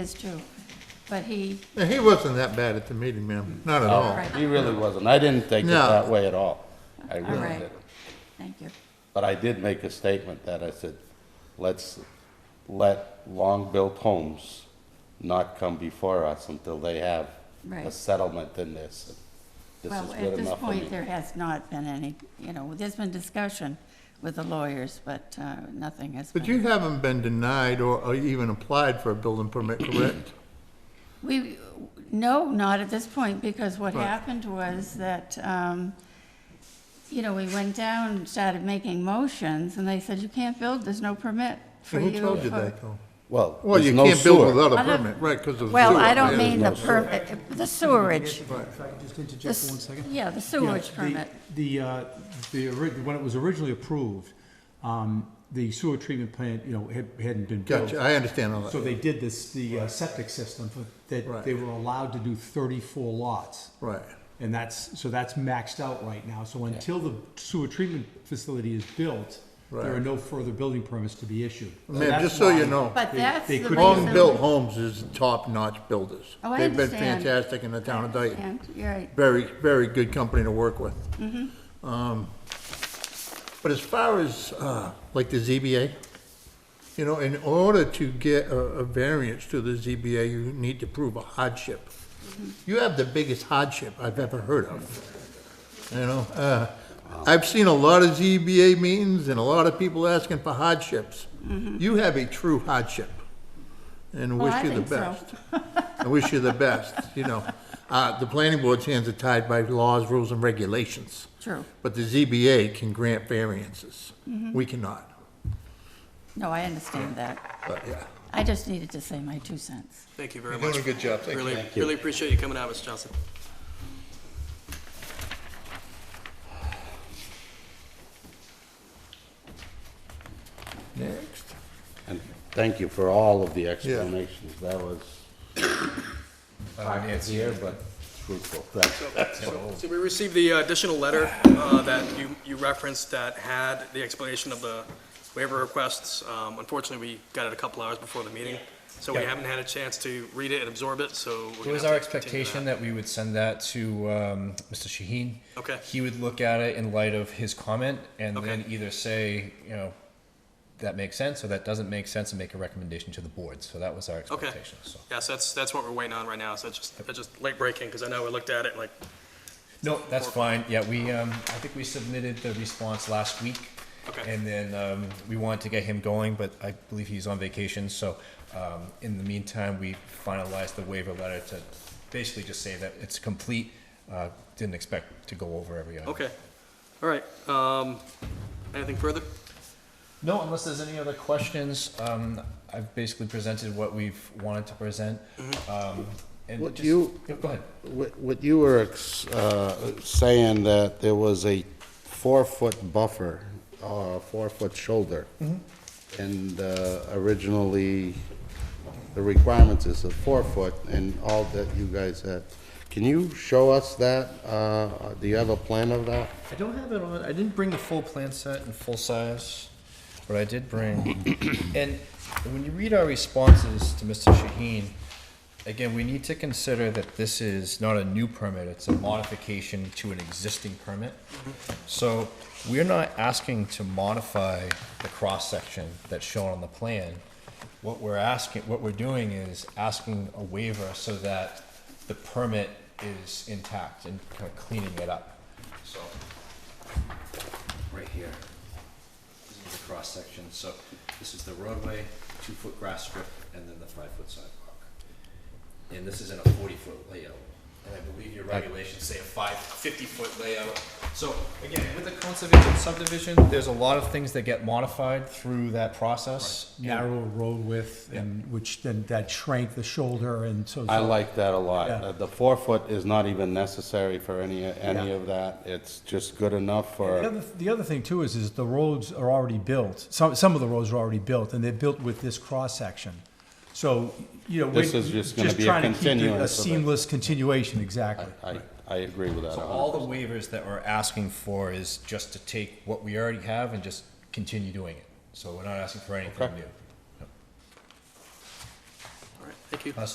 is too, but he, Yeah, he wasn't that bad at the meeting, ma'am, not at all. right, Oh, He really wasn't. I didn't take it Oh, No. that way at all. I all really right, didn't. thank you. But I did make a statement that I said, let's let long-built homes not come before us until they have a Right. settlement in this. This is Well, good at this enough for point, me. there has not been any, you know, there's been discussion with the lawyers, but uh, nothing has But been. you haven't been denied or or even applied for a building permit, correct? We, no, not at this point, because what Right. happened was that, um, you know, we went down and started making motions, and they said, you can't build, there's no permit for you. Who told you for-" that, though? Well, Well, there's you no can't build sewer. without a I don't- permit, right, because of the Well, sewer, I don't right? mean the no sewer. permit, the sewerage, If I could just interject This- for one second. yeah, the Yeah, sewerage the- permit. The, uh, the, ori- when it was originally approved, um, the sewer treatment plant, you know, had, hadn't been built. Gotcha, I understand all So that, they did this, the uh, septic system, for- that Right. they were allowed to do thirty-four lots. right. And that's, so that's maxed out right now. So until the sewer treatment facility is built, there are Right. no further building permits to be issued. So Ma'am, that's just so you why- know, But They- that's the they reason. couldn't- Long Long-built homes is top-notch builders. Oh, I They've been understand. fantastic in the town of Dayton. And, you're right, very, very good company to work with. Um, Mm-hmm. But as far as, uh, like the ZBA, you know, in order to get a, a variance to the ZBA, you need to prove a hardship. Mm-hmm. You have the biggest hardship I've ever heard of, you know? Uh, I've seen a lot of ZBA meetings and a lot of people asking for hardships. You have a true hardship, and Well, Mm-hmm. wish Oh, I you the think so. best. I wish you the best, you know. Uh, the planning board's hands are tied by laws, rules, and regulations. true. But the ZBA can grant variances. We cannot, No, I understand that. but yeah. I just needed to say my two cents. Thank you very You're much. doing a good job. Thank you. Really, really appreciate you coming out, Mr. Johnson. Next. And thank you for all of the explanations. That was, Uh, I can't hear, but truthful. Thank you. So we received the additional letter uh, that you, you referenced that had the explanation of the waiver requests. Um, Unfortunately, we got it a couple hours before the meeting, so we Yeah. haven't had a chance to read it and absorb it, so. we're It gonna was have our to continue expectation that we would send that to um, Mr. Shaheen. Okay. He would look at it in light of his comment and Okay. then either say, you know, that makes sense or that doesn't make sense and make a recommendation to the board. So that was our Okay. expectation. So. Yes, that's, that's what we're waiting on right now, so it's just, it's just late breaking, because I know we looked at it like, No, that's fine. Yeah, we, um, I think we submitted the response last week. Okay. And then, um, we wanted to get him going, but I believe he's on vacation, so, um, in the meantime, we finalized the waiver letter to basically just say that it's complete. Uh, didn't expect to go over every item. okay, all right. um, Anything further? No, unless there's any other questions, um, I've basically presented what we've wanted to present. Mm-hmm. Um, and Would just- you- Yeah, Go ahead. What what you were ex- uh, saying that there was a four-foot buffer, or a four-foot shoulder, and uh, originally, the requirements is a four-foot, and all that you guys had. Can you show us that? Uh, Do you have a plan of that? I don't have it on. I didn't bring the full plan set in full size, but I did bring. and when you read our responses to Mr. Shaheen, again, we need to consider that this is not a new permit, it's a modification to an existing permit. So we're not asking to modify the cross section that's shown on the plan. What we're asking, what we're doing is asking a waiver so that the permit is intact and kind of cleaning it up. So right here. This is the cross section, so this is the roadway, two foot grass strip, and then the five foot sidewalk. And this is in a forty foot layout, and I believe your regulations say a five, fifty foot layout. So again, with a conservation subdivision, there's a lot of things that get modified through that process. Narrow road width and which then that shrank the shoulder and so. I like that a lot. Yeah. Uh, The four-foot is not even necessary for any, any Yeah. of that. It's just good enough The for, other, the other thing too is, is the roads are already built. Some, some of the roads are already built and they're built with this cross-section. So, you know, we're This is just gonna just be a trying to keep it a continuance of it. seamless continuation, exactly. I, I agree with that. So a hundred all percent. the waivers that we're asking for is just to take what we already have and just continue doing it. So we're not asking for anything Okay. new. All right, thank you. thank you.